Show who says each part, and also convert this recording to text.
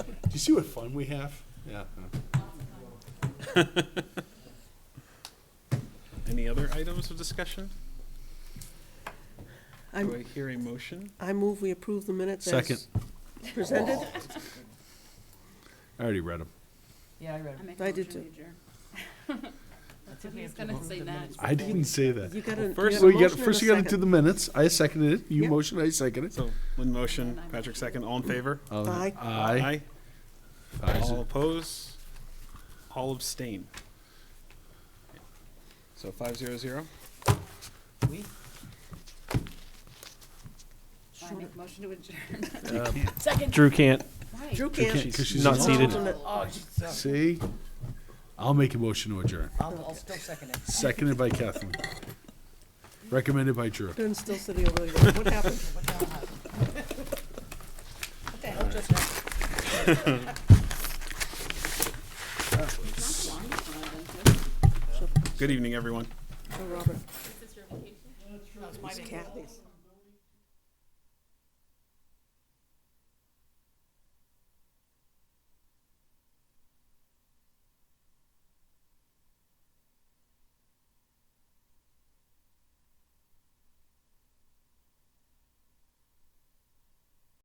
Speaker 1: see what fun we have? Yeah.
Speaker 2: Any other items of discussion? Do
Speaker 3: I'm-
Speaker 2: I hear a motion?
Speaker 3: I move we approve the minutes
Speaker 1: Second.
Speaker 3: as presented.
Speaker 1: I already read them.
Speaker 4: Yeah, I read
Speaker 5: I
Speaker 4: it.
Speaker 5: make a
Speaker 3: I did
Speaker 5: motion, we adjourn. That's what he's gonna say next.
Speaker 1: I didn't say that.
Speaker 3: You got a, you
Speaker 2: first-
Speaker 3: got
Speaker 1: So
Speaker 3: a
Speaker 1: you got,
Speaker 3: motion and a
Speaker 1: first you gotta do the
Speaker 3: second.
Speaker 1: minutes. I seconded it. You
Speaker 3: Yeah.
Speaker 1: motioned, I seconded it.
Speaker 2: So, one motion, Patrick second, all in favor?
Speaker 1: Um,
Speaker 3: Aye.
Speaker 1: Aye. Ayes
Speaker 2: All
Speaker 1: it.
Speaker 2: oppose? All abstain? So five zero zero?
Speaker 4: We,
Speaker 5: I make a motion to adjourn.
Speaker 6: Drew can't.
Speaker 5: Why?
Speaker 3: Drew can't.
Speaker 1: Because she's
Speaker 6: not
Speaker 1: on-
Speaker 6: seated.
Speaker 4: oh, Jesus.
Speaker 1: See? I'll make a motion to adjourn.
Speaker 4: I'll, I'll still second it.
Speaker 1: Seconded by Kathleen. Recommended by Drew.
Speaker 3: Ben's still sitting over there. What happened?
Speaker 4: What the hell just happened?
Speaker 5: Not long, but I've been to.
Speaker 2: Good evening, everyone.
Speaker 3: Oh, Robert. It's Kathy's.